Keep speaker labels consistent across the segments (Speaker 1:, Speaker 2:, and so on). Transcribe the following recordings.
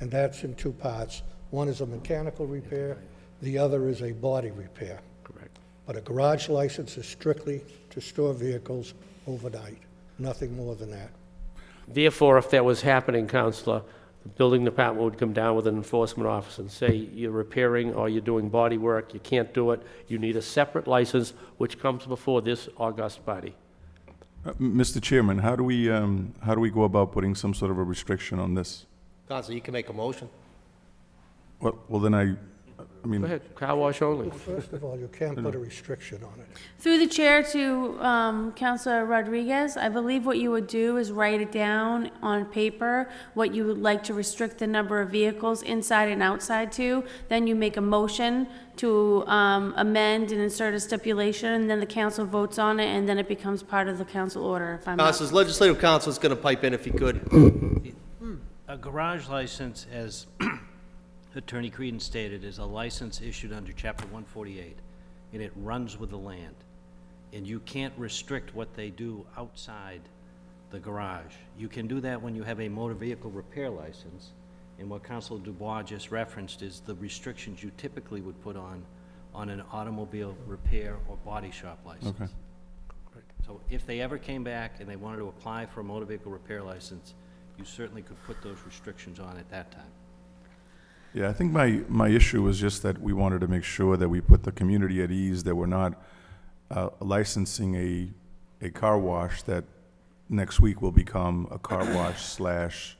Speaker 1: and that's in two parts. One is a mechanical repair, the other is a body repair.
Speaker 2: Correct.
Speaker 1: But a garage license is strictly to store vehicles overnight, nothing more than that.
Speaker 2: Therefore, if that was happening, Counselor, the building department would come down with an enforcement officer and say, you're repairing or you're doing body work, you can't do it, you need a separate license, which comes before this august body.
Speaker 3: Uh, m- Mr. Chairman, how do we, um, how do we go about putting some sort of a restriction on this?
Speaker 4: Counsel, you can make a motion.
Speaker 3: Well, well, then I, I
Speaker 2: Go
Speaker 3: mean,
Speaker 2: ahead, car wash only.
Speaker 1: First of all, you can't put a restriction on it.
Speaker 5: Through the chair to um, Counselor Rodriguez, I believe what you would do is write it down on paper, what you would like to restrict the number of vehicles inside and outside to. Then you make a motion to um, amend and insert a stipulation, and then the council votes on it, and then it becomes part of the council order, if I'm not
Speaker 4: Counselors, legislative council's gonna pipe in if he could.
Speaker 6: A garage license, as Attorney Creedon stated, is a license issued under Chapter 148, and it runs with the land. And you can't restrict what they do outside the garage. You can do that when you have a motor vehicle repair license, and what Council Dubois just referenced is the restrictions you typically would put on, on an automobile repair or body shop license.
Speaker 3: Okay.
Speaker 6: So if they ever came back and they wanted to apply for a motor vehicle repair license, you certainly could put those restrictions on at that time.
Speaker 3: yeah, I think my, my issue was just that we wanted to make sure that we put the community at ease, that we're not uh, licensing a, a car wash that next week will become a car wash slash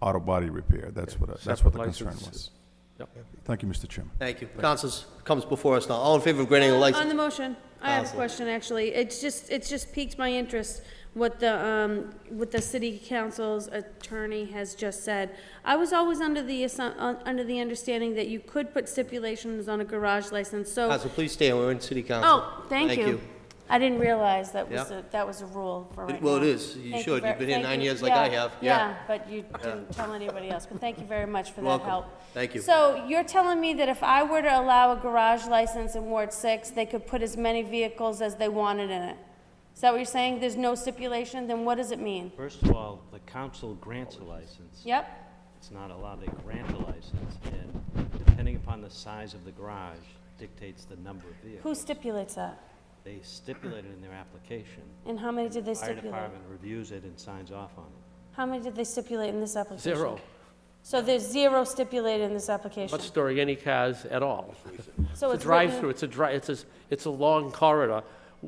Speaker 3: auto body repair. That's what, I- that's what the concern was.
Speaker 2: Licenses. Yep.
Speaker 3: Thank you, Mr. Chairman.
Speaker 4: Thank you. Counselors, comes before us now. All in favor of granting a
Speaker 5: Uh, On
Speaker 4: license?
Speaker 5: the motion, I have a
Speaker 4: Counsel.
Speaker 5: question, actually. It's just, it's just piqued my interest what the, um, what the city council's attorney has just said. I was always under the, assu- un- under the understanding that you could put stipulations on a garage license, so.
Speaker 4: Counsel, please stand. We're in city council.
Speaker 5: Oh, thank you. I didn't realize that was,
Speaker 4: Yeah.
Speaker 5: a- that was a rule
Speaker 4: It-
Speaker 5: for right now.
Speaker 4: well, it is. You
Speaker 5: Thank you
Speaker 4: should.
Speaker 5: ver-
Speaker 4: You've been here
Speaker 5: thank
Speaker 4: nine
Speaker 5: you.
Speaker 4: years like I have. Yeah.
Speaker 5: Yeah, but you didn't tell anybody else, but thank you very much for that
Speaker 4: welcome.
Speaker 5: help.
Speaker 4: Thank you.
Speaker 5: So you're telling me that if I were to allow a garage license in Ward Six, they could put as many vehicles as they wanted in it? Is that what you're saying? There's no stipulation? Then what does it mean?
Speaker 6: First of all, the council grants a license.
Speaker 5: Yep,
Speaker 6: It's not allowed, they grant a license, and depending upon the size of the garage dictates the number of
Speaker 5: who
Speaker 6: vehicles.
Speaker 5: stipulates that?
Speaker 6: They stipulate it in their application.
Speaker 5: And how many did they
Speaker 6: Fire
Speaker 5: stipulate?
Speaker 6: department reviews it and signs off on it.
Speaker 5: How many did they stipulate in this application?
Speaker 2: Zero.
Speaker 5: So there's zero stipulated in this application?
Speaker 2: Not storing any cars at all.
Speaker 5: So
Speaker 2: It's a
Speaker 5: it's written-
Speaker 2: drive-through, it's a dri, it's a, it's a long corridor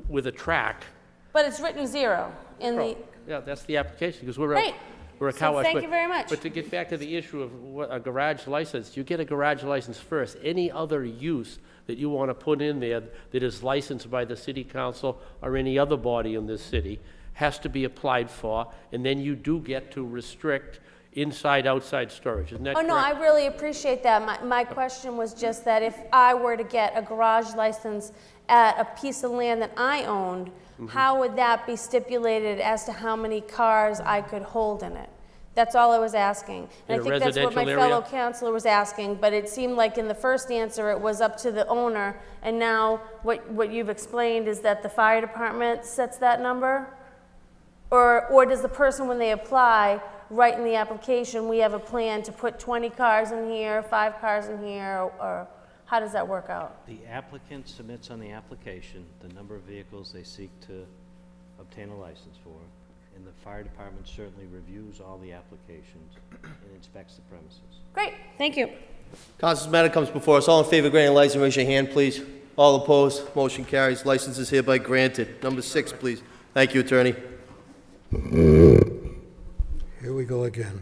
Speaker 2: with a track.
Speaker 5: But it's written zero in the,
Speaker 2: Yeah, that's the application, because we're a,
Speaker 5: Right.
Speaker 2: we're a
Speaker 5: So
Speaker 2: car wash.
Speaker 5: thank
Speaker 2: but-
Speaker 5: you very much.
Speaker 2: But to get back to the issue of what, a garage license, you get a garage license first. Any other use that you want to put in there that is licensed by the city council or any other body in this city has to be applied for, and then you do get to restrict inside, outside storage, isn't that
Speaker 5: oh
Speaker 2: correct?
Speaker 5: no, I really appreciate that. My, my question was just that if I were to get a garage license at a piece of land that I owned, how would that be stipulated as to how many cars I could hold in it? That's all I was asking.
Speaker 2: In
Speaker 5: And
Speaker 2: a
Speaker 5: I think that's what my
Speaker 2: residential
Speaker 5: fellow
Speaker 2: area?
Speaker 5: counselor was asking, but it seemed like in the first answer, it was up to the owner. And now what, what you've explained is that the fire department sets that number? Or, or does the person, when they apply, write in the application, we have a plan to put 20 cars in here, five cars in here, or how does that work out?
Speaker 6: The applicant submits on the application the number of vehicles they seek to obtain a license for, and the fire department certainly reviews all the applications and inspects the premises.
Speaker 5: Great, thank you.
Speaker 4: Counselors, matter comes before us. All in favor of granting a license, raise your hand, please. All opposed, motion carries. License is hereby granted. Number six, please. Thank you, attorney.
Speaker 1: Here we go again.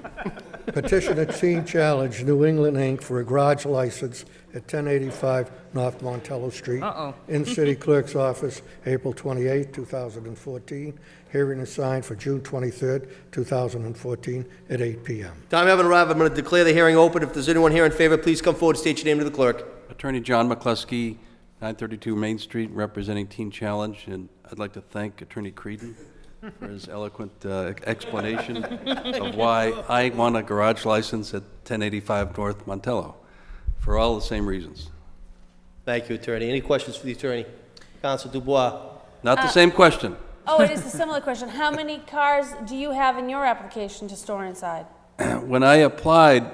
Speaker 1: Petition at Sea Challenge, New England, Inc., for a garage license at 1085 North Montello Street. In City Clerk's Office, April 28, 2014. Hearing assigned for June 23, 2014, at 8 PM.
Speaker 4: Time haven't arrived. I'm gonna declare the hearing open. If there's anyone here in favor, please come forward, state your name to the clerk.
Speaker 7: Attorney John McCluskey, 932 Main Street, representing Teen Challenge, and I'd like to thank Attorney Creedon for his eloquent uh, explanation of why I want a garage license at 1085 North Montello, for all the same reasons.
Speaker 4: Thank you, attorney. Any questions for the attorney? Counsel Dubois.
Speaker 7: Not the same question.
Speaker 5: Oh, it is a similar question. How many cars do you have in your application to store inside?
Speaker 7: when I applied,